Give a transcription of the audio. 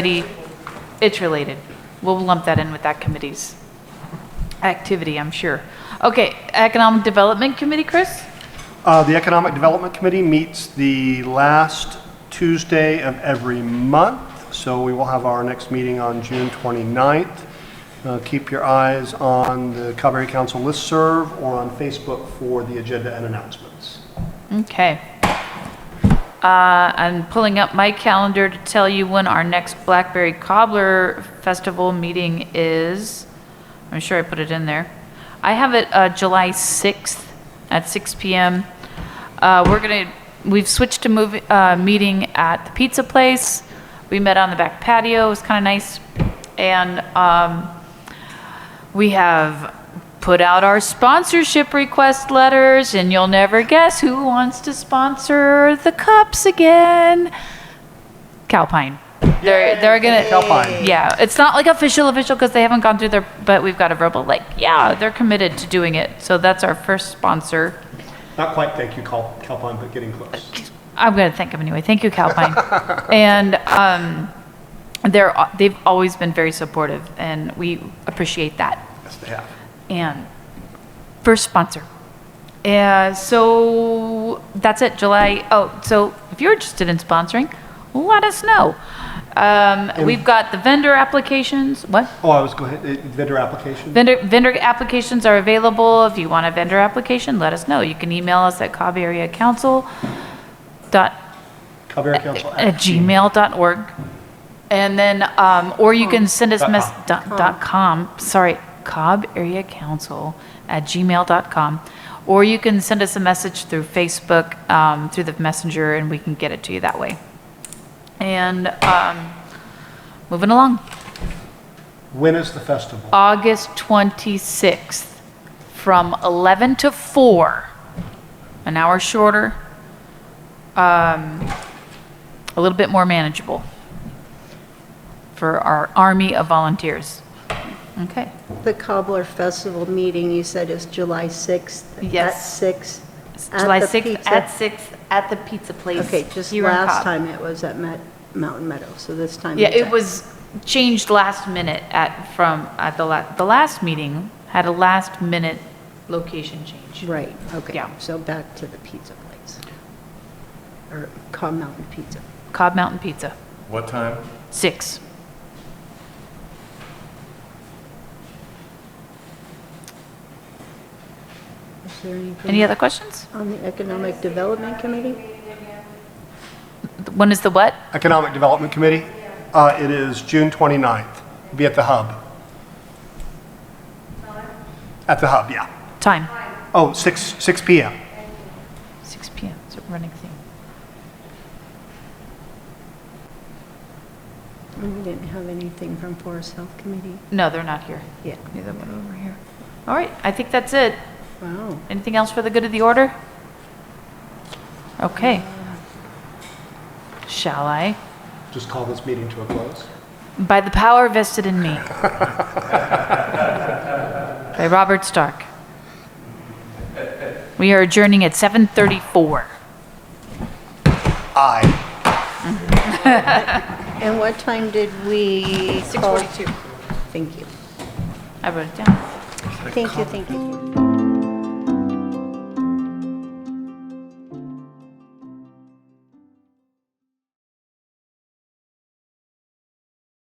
committee, it's related. We'll lump that in with that committee's activity, I'm sure. Okay, Economic Development Committee, Chris? Uh, The Economic Development Committee meets the last Tuesday of every month, so we will have our next meeting on June 29th. Uh, Keep your eyes on the Calvary Council listserv or on Facebook for the agenda and announcements. Okay. Uh, I'm pulling up my calendar to tell you when our next Blackberry Cobbler Festival meeting is. I'm sure I put it in there. I have it uh, July 6th at 6 PM. Uh, We're going to, we've switched to move, uh, meeting at the pizza place. We met on the back patio, it was kind of nice. And um, we have put out our sponsorship request letters, and you'll never guess who wants to sponsor the cups again. Calpine. They're they're gonna Calpine. Yeah, it's not like official official because they haven't gone through their. But we've got a verbal like yeah, they're committed to doing it. So that's our first sponsor. Not quite thank you, Cal- Calpine, but getting close. I'm gonna thank them anyway. Thank you, Calpine. and um, they're they've always been very supportive, and we appreciate that. Yes, they have. and first sponsor. Uh, so that's it, July. Oh, so if you're interested in sponsoring, let us know. Um, we've got the vendor applications. What? Oh, I was, go ahead, uh, vendor application? Vendor, vendor applications are available. If you want a vendor application, let us know. You can email us at Cobb Area Council dot Calvary Council. at gmail.org. And then, um, or you can send us Dot mess, com. dot, dot com, sorry, Cobb Area Council at gmail.com. Or you can send us a message through Facebook, um, through the messenger, and we can get it to you that way. And, um, moving along, When is the festival? August 26th, from 11 to 4, an hour shorter, um, a little bit more manageable for our army of volunteers. Okay, The Cobbler Festival meeting, you said is July 6th? Yes. At 6? July 6th at 6, at the pizza place. Okay, just here in last Cobb. time it was at Met- Mountain Meadow, so this time. Yeah, it's it at- was changed last minute at, from, at the la, the last meeting had a last minute location change. Right, okay. Yeah. So back to the pizza place. Or Cobb Mountain Pizza. Cobb Mountain Pizza, What time? 6. Is there anything Any other questions? on the Economic Development Committee? When is the what? Economic Development Committee? Uh, It is June 29th. Be at the hub. At the hub, yeah. Time? Oh, 6, 6 PM. 6 PM, it's a running thing. We didn't have anything from Forest Health Committee. No, they're not here. Yeah. Neither one over here. All right, I think that's it. Wow. Anything else for the good of the order? Okay. Shall I? Just call this meeting to a close. By the power vested in me. By Robert Stark. We are adjourning at 7:34. Aye. And what time did we call? Thank you. I wrote it down. Thank you, thank you.